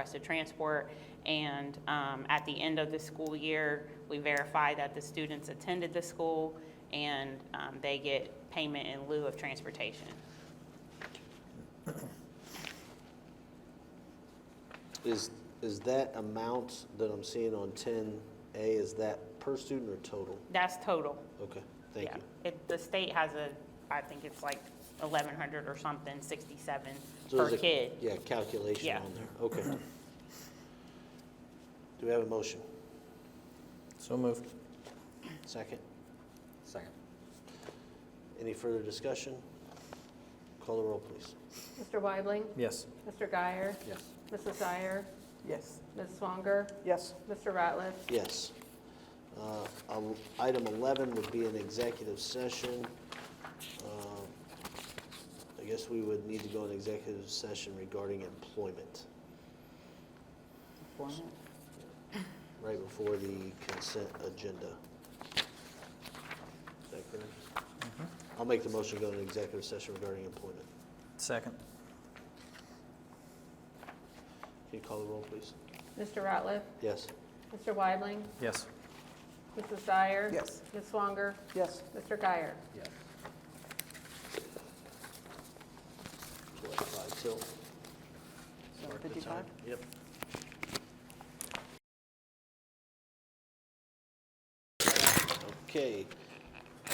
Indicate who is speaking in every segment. Speaker 1: request of transport. And um, at the end of the school year, we verify that the students attended the school and um, they get payment in lieu of transportation.
Speaker 2: Is, is that amount that I'm seeing on 10A, is that per student or total?
Speaker 1: That's total.
Speaker 2: Okay, thank
Speaker 1: Yeah.
Speaker 2: you.
Speaker 1: It- The state has a, I think it's like 1,100 or something, 67
Speaker 2: So
Speaker 1: per
Speaker 2: there's a-
Speaker 1: kid.
Speaker 2: Yeah, calculation
Speaker 1: Yeah.
Speaker 2: on there, okay. Do we have a motion?
Speaker 3: So moved.
Speaker 2: Second?
Speaker 3: Second.
Speaker 2: Any further discussion? Call the roll, please.
Speaker 4: Mr. Weibling,
Speaker 3: Yes.
Speaker 4: Mr. Guyer,
Speaker 3: Yes.
Speaker 4: Mrs. Dyer,
Speaker 5: Yes.
Speaker 4: Ms. Swanger,
Speaker 5: Yes.
Speaker 4: Mr. Ratliff,
Speaker 2: Yes. Uh, el- Item 11 would be an executive session. Uh, I guess we would need to go in executive session regarding employment, right before the consent agenda. Is that correct? I'll make the motion to go into executive session regarding employment.
Speaker 3: Second.
Speaker 2: Can you call the roll, please?
Speaker 4: Mr. Ratliff,
Speaker 2: Yes.
Speaker 4: Mr. Weibling,
Speaker 3: Yes.
Speaker 4: Mrs. Dyer.
Speaker 5: Yes.
Speaker 4: Ms. Swanger,
Speaker 5: Yes.
Speaker 4: Mr. Guyer.
Speaker 3: Yes.
Speaker 2: So that's five till.
Speaker 5: Seven
Speaker 2: Mark the time.
Speaker 5: fifty-five?
Speaker 2: Yep. Okay.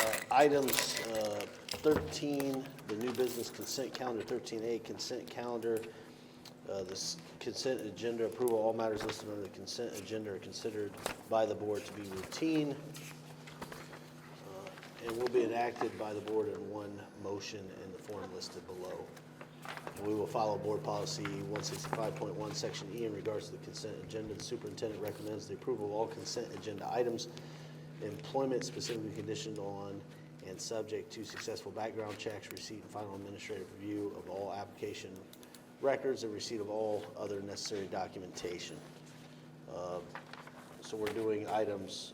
Speaker 2: Uh, Items uh, 13, the new business consent calendar, 13A consent calendar. Uh, This consent agenda approval, all matters listed under the consent agenda are considered by the board to be routine uh, and will be enacted by the board in one motion in the form listed below. We will follow Board Policy 165.1, Section E, in regards to the consent agenda. The superintendent recommends the approval of all consent agenda items, employment specifically conditioned on and subject to successful background checks, receipt and final administrative review of all application records, and receipt of all other necessary documentation. Uh, So we're doing items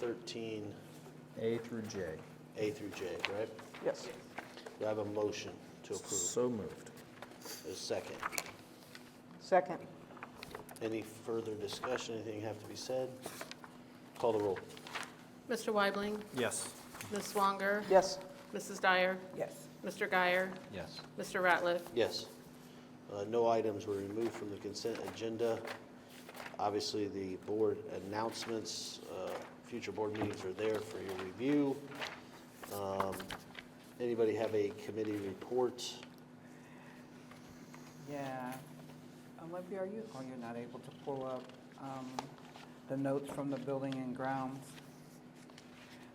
Speaker 2: 13A
Speaker 3: A through J.
Speaker 2: through J, right?
Speaker 5: Yes.
Speaker 2: Do I have a motion to approve?
Speaker 3: So moved.
Speaker 2: A second?
Speaker 5: Second?
Speaker 2: Any further discussion, anything have to be said? Call the roll.
Speaker 4: Mr. Weibling,
Speaker 3: Yes.
Speaker 4: Ms. Swanger,
Speaker 5: Yes.
Speaker 4: Mrs. Dyer,
Speaker 5: Yes.
Speaker 4: Mr. Guyer,
Speaker 3: Yes.
Speaker 4: Mr. Ratliff,
Speaker 2: Yes. Uh, No items were removed from the consent agenda. Obviously, the board announcements, uh, future board meetings are there for your review. Um, Anybody have a committee report?
Speaker 5: Yeah. Olympia, are you, oh, you're not able to pull up um, the notes from the building and grounds.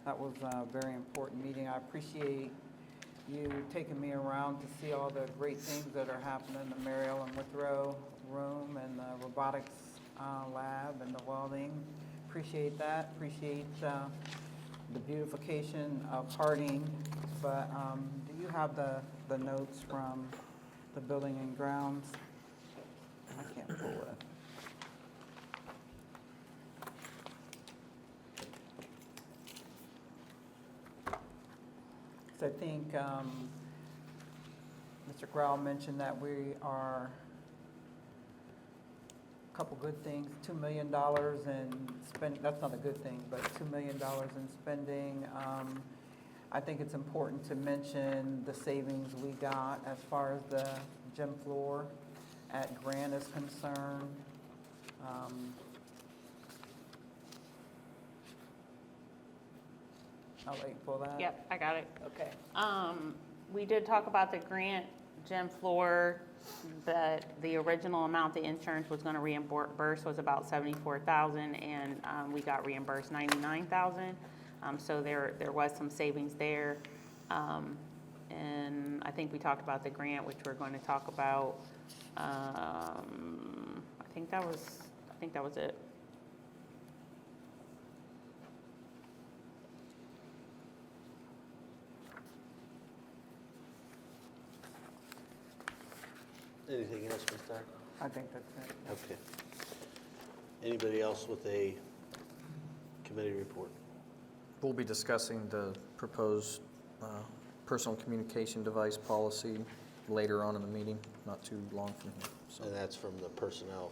Speaker 5: That was a very important meeting. I appreciate you taking me around to see all the great things that are happening in the Mary Ellen Withrow room and the robotics uh, lab and the welding. Appreciate that. Appreciate uh, the beautification of Harding. But um, do you have the, the notes from the building and grounds? I can't pull it. So I think um, Mr. Grau mentioned that we are, a couple good things, $2 million in spend, that's not a good thing, but $2 million in spending. Um, I think it's important to mention the savings we got as far as the gym floor at Grant is concerned. Um, I'll wait for that.
Speaker 1: Yep, I got it.
Speaker 5: Okay.
Speaker 1: Um, we did talk about the grant, gym floor, but the original amount the insurance was gonna reimburse was about seventy-four thousand, and, um, we got reimbursed ninety-nine thousand. Um, so there, there was some savings there. Um, and I think we talked about the grant, which we're going to talk about. Um, I think that was, I think that was it.
Speaker 2: Anything else, Ms. Dyer?
Speaker 5: I think that's it.
Speaker 2: Okay. Anybody else with a committee report?
Speaker 3: We'll be discussing the proposed uh, personal communication device policy later on in the meeting, not too long from here. So
Speaker 2: And that's from the personnel